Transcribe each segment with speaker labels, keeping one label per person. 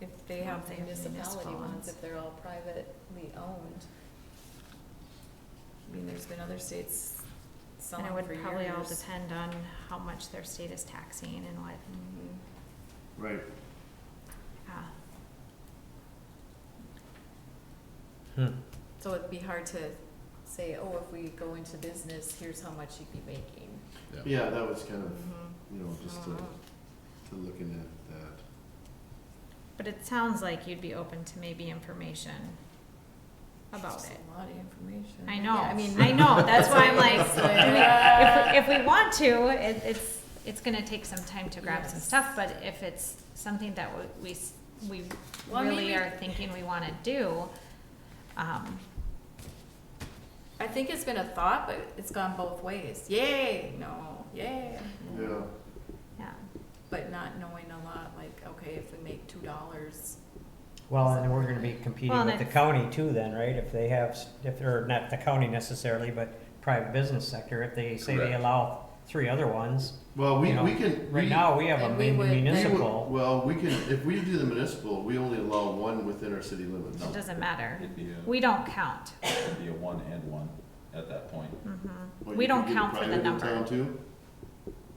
Speaker 1: if they
Speaker 2: Well,
Speaker 1: have
Speaker 2: if they have
Speaker 1: municipality
Speaker 2: municipal
Speaker 1: ones,
Speaker 2: ones.
Speaker 1: if they're all privately owned. I mean, there's been other states
Speaker 2: And
Speaker 1: selling
Speaker 2: it
Speaker 1: for years.
Speaker 2: would probably all depend on how much their state is taxing and what,
Speaker 1: Mhm.
Speaker 3: Right.
Speaker 2: yeah.
Speaker 1: So it'd be hard to say, oh, if we go into business, here's how much you'd be making.
Speaker 3: Yeah, that was kind of,
Speaker 1: Mhm.
Speaker 3: you know, just to,
Speaker 1: Mhm.
Speaker 2: Mm-hmm.
Speaker 3: to looking at that.
Speaker 2: But it sounds like you'd be open to maybe information about
Speaker 1: Just
Speaker 2: it.
Speaker 1: A lot of information.
Speaker 2: I know,
Speaker 1: Yeah,
Speaker 2: I mean, I know, that's why I'm like, do we- if, we- if we want to, it, it's, it's gonna take some time to grab some
Speaker 1: Yes.
Speaker 2: stuff, but if it's something that we- we, s- we
Speaker 1: Well,
Speaker 2: really
Speaker 1: maybe-
Speaker 2: are thinking we wanna do, um,
Speaker 1: I think it's been a thought, but it's gone both ways. Yay, no, yay.
Speaker 3: Yeah,
Speaker 2: yeah.
Speaker 1: But not knowing a lot, like, okay, if we make two dollars,
Speaker 4: Well, and we're gonna be
Speaker 2: Well,
Speaker 4: competing with the
Speaker 2: that's-
Speaker 4: county too then, right? If they have, s- if they're, not the county necessarily, but private business sector, if they say they
Speaker 3: Correct.
Speaker 4: allow three other ones,
Speaker 3: well, we,
Speaker 4: You know,
Speaker 3: we can.
Speaker 4: right
Speaker 3: we-
Speaker 4: now, we have a
Speaker 1: And we
Speaker 4: mun-
Speaker 1: would-
Speaker 3: we would-
Speaker 4: municipal.
Speaker 3: Well, we can, if we do the municipal, we only allow one within our city limits.
Speaker 2: It doesn't matter.
Speaker 5: It'd be a,
Speaker 2: We don't count.
Speaker 5: it'd be a one and one at that point.
Speaker 2: Mhm.
Speaker 3: Well,
Speaker 2: We
Speaker 3: you could
Speaker 2: don't
Speaker 3: get a
Speaker 2: count for the
Speaker 3: private in town
Speaker 2: number.
Speaker 3: too?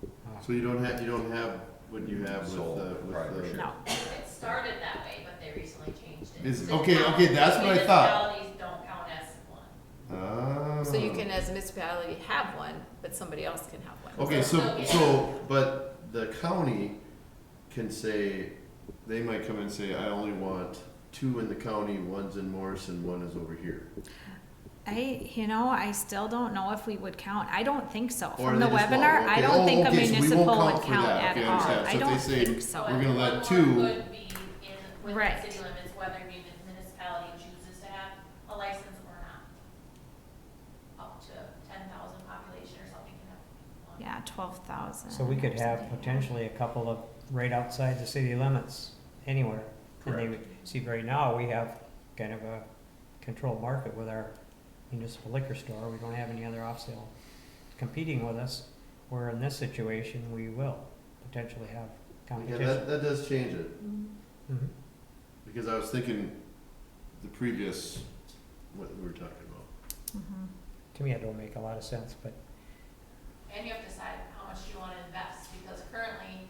Speaker 4: Uh,
Speaker 3: So you don't have, you don't have what you have with
Speaker 5: Sole
Speaker 3: the, with the.
Speaker 5: proprietorship.
Speaker 2: No,
Speaker 6: It started that way, but they recently changed it.
Speaker 3: Is- okay, okay, that's what I thought.
Speaker 6: Municipalities don't count as one.
Speaker 3: Ah.
Speaker 1: so you can as a municipality have one, but somebody else can have one.
Speaker 3: Okay, so,
Speaker 6: Okay.
Speaker 3: so, but the county can say, they might come and say, I only want two in the county, one's in Morrison, one is over here.
Speaker 2: I, you know, I still don't know if we would count. I don't think so.
Speaker 3: Or
Speaker 2: From
Speaker 3: they
Speaker 2: the
Speaker 3: just won't.
Speaker 2: webinar, I
Speaker 3: Okay.
Speaker 2: don't
Speaker 3: Oh,
Speaker 2: think a
Speaker 3: okay, so we won't
Speaker 2: municipal
Speaker 3: count
Speaker 2: would
Speaker 3: for
Speaker 2: count
Speaker 3: that.
Speaker 2: at
Speaker 3: Okay, I
Speaker 2: all. I
Speaker 3: understand. So if they
Speaker 2: don't
Speaker 3: say-
Speaker 2: think
Speaker 6: So
Speaker 3: We're
Speaker 2: so.
Speaker 3: gonna let
Speaker 6: one more
Speaker 3: two-
Speaker 6: Would be in,
Speaker 2: Right.
Speaker 6: within city limits, whether mun- municipality chooses to have a license or not. Up to ten thousand population or something can have one.
Speaker 2: Yeah, twelve thousand.
Speaker 4: So we could have potentially a couple of right outside the city limits, anywhere. And they, would see, right now, we have kind of a controlled market with our municipal liquor store. We don't have any other off-sale competing with us. Where in this situation, we will potentially have
Speaker 3: Yeah,
Speaker 4: competition.
Speaker 3: that, that does change it,
Speaker 1: Mhm.
Speaker 4: Mhm.
Speaker 3: because I was thinking the previous, what we were talking about.
Speaker 2: Mhm.
Speaker 4: To me, that don't make a lot of sense, but
Speaker 6: And you have to decide how much you wanna invest, because currently,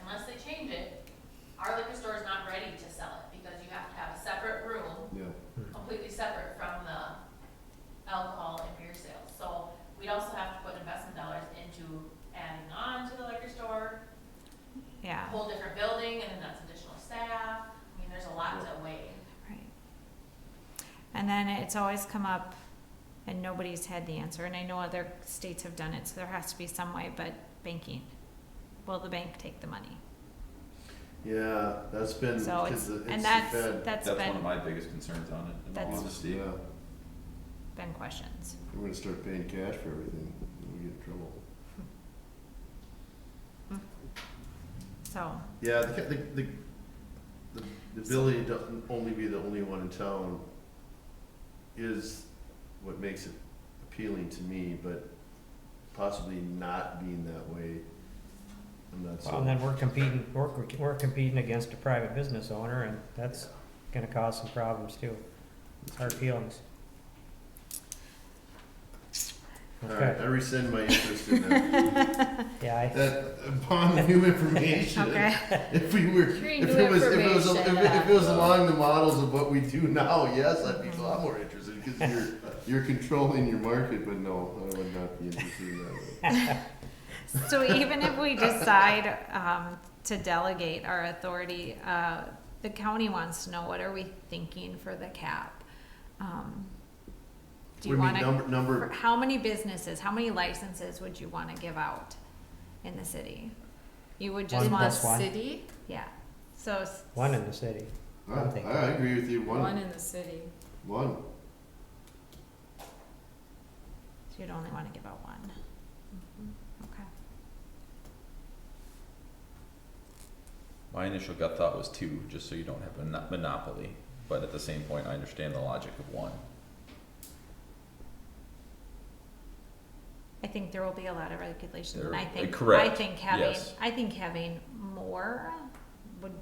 Speaker 6: unless they change it, our liquor store is not ready to sell it, because you have to have a separate room
Speaker 3: Yeah.
Speaker 6: completely separate from the alcohol and beer sales. So we'd also have to put investment dollars into adding on to the liquor store, a
Speaker 2: Yeah,
Speaker 6: whole different building, and then that's additional staff. I mean, there's a lot to weigh.
Speaker 2: right. And then it's always come up and nobody's had the answer. And I know other states have done it, so there has to be some way, but banking. Will the bank take the money?
Speaker 3: Yeah, that's been,
Speaker 2: So
Speaker 3: because
Speaker 2: it's,
Speaker 3: it's
Speaker 2: and that's,
Speaker 3: been,
Speaker 2: that's
Speaker 5: That's one of
Speaker 2: been,
Speaker 5: my biggest concerns on it, in all
Speaker 2: That's-
Speaker 5: honesty.
Speaker 3: yeah,
Speaker 2: been questions.
Speaker 3: we're gonna start paying cash for everything, and we get in trouble.
Speaker 2: So,
Speaker 3: Yeah, the, the, the, the the ability to only be the only one in town is what makes it appealing to me, but possibly not being that way, I'm not so.
Speaker 4: Well, and then we're competing, we're, we're competing against a private business owner, and that's gonna cause some problems too. It's hard feelings.
Speaker 3: Alright,
Speaker 4: Okay,
Speaker 3: I rescind my interest in that,
Speaker 4: yeah, I,
Speaker 3: that, upon new information,
Speaker 2: okay.
Speaker 3: if we were, if
Speaker 1: Hearing new
Speaker 3: it was, if it was, if
Speaker 1: information,
Speaker 3: it- if it was
Speaker 1: uh,
Speaker 3: along the models of what we do now, yes, I'd be a lot more interested, cause you're, you're controlling your market, but no, I would not be interested in that way.
Speaker 2: So even if we decide um, to delegate our authority, uh, the county wants to know what are we thinking for the cap? Um, Do you
Speaker 3: What
Speaker 2: want
Speaker 3: do
Speaker 2: to,
Speaker 3: mean, number, number,
Speaker 2: how many businesses, how many licenses would you want to give out in the city? You would just
Speaker 4: One
Speaker 1: In the
Speaker 4: plus
Speaker 2: want,
Speaker 4: one.
Speaker 1: city,
Speaker 2: yeah, so. s-
Speaker 4: one in the city,
Speaker 3: I, I agree with you,
Speaker 1: one
Speaker 3: one,
Speaker 1: in the city.
Speaker 3: one,
Speaker 2: So you'd only want to give out one, okay.
Speaker 5: My initial gut thought was two, just so you don't have a mono- monopoly, but at the same point, I understand the logic of one.
Speaker 2: I think there will be a lot of regulations, and I
Speaker 5: There-
Speaker 2: think, I
Speaker 5: correct,
Speaker 2: think having,
Speaker 5: yes.
Speaker 2: I think having more would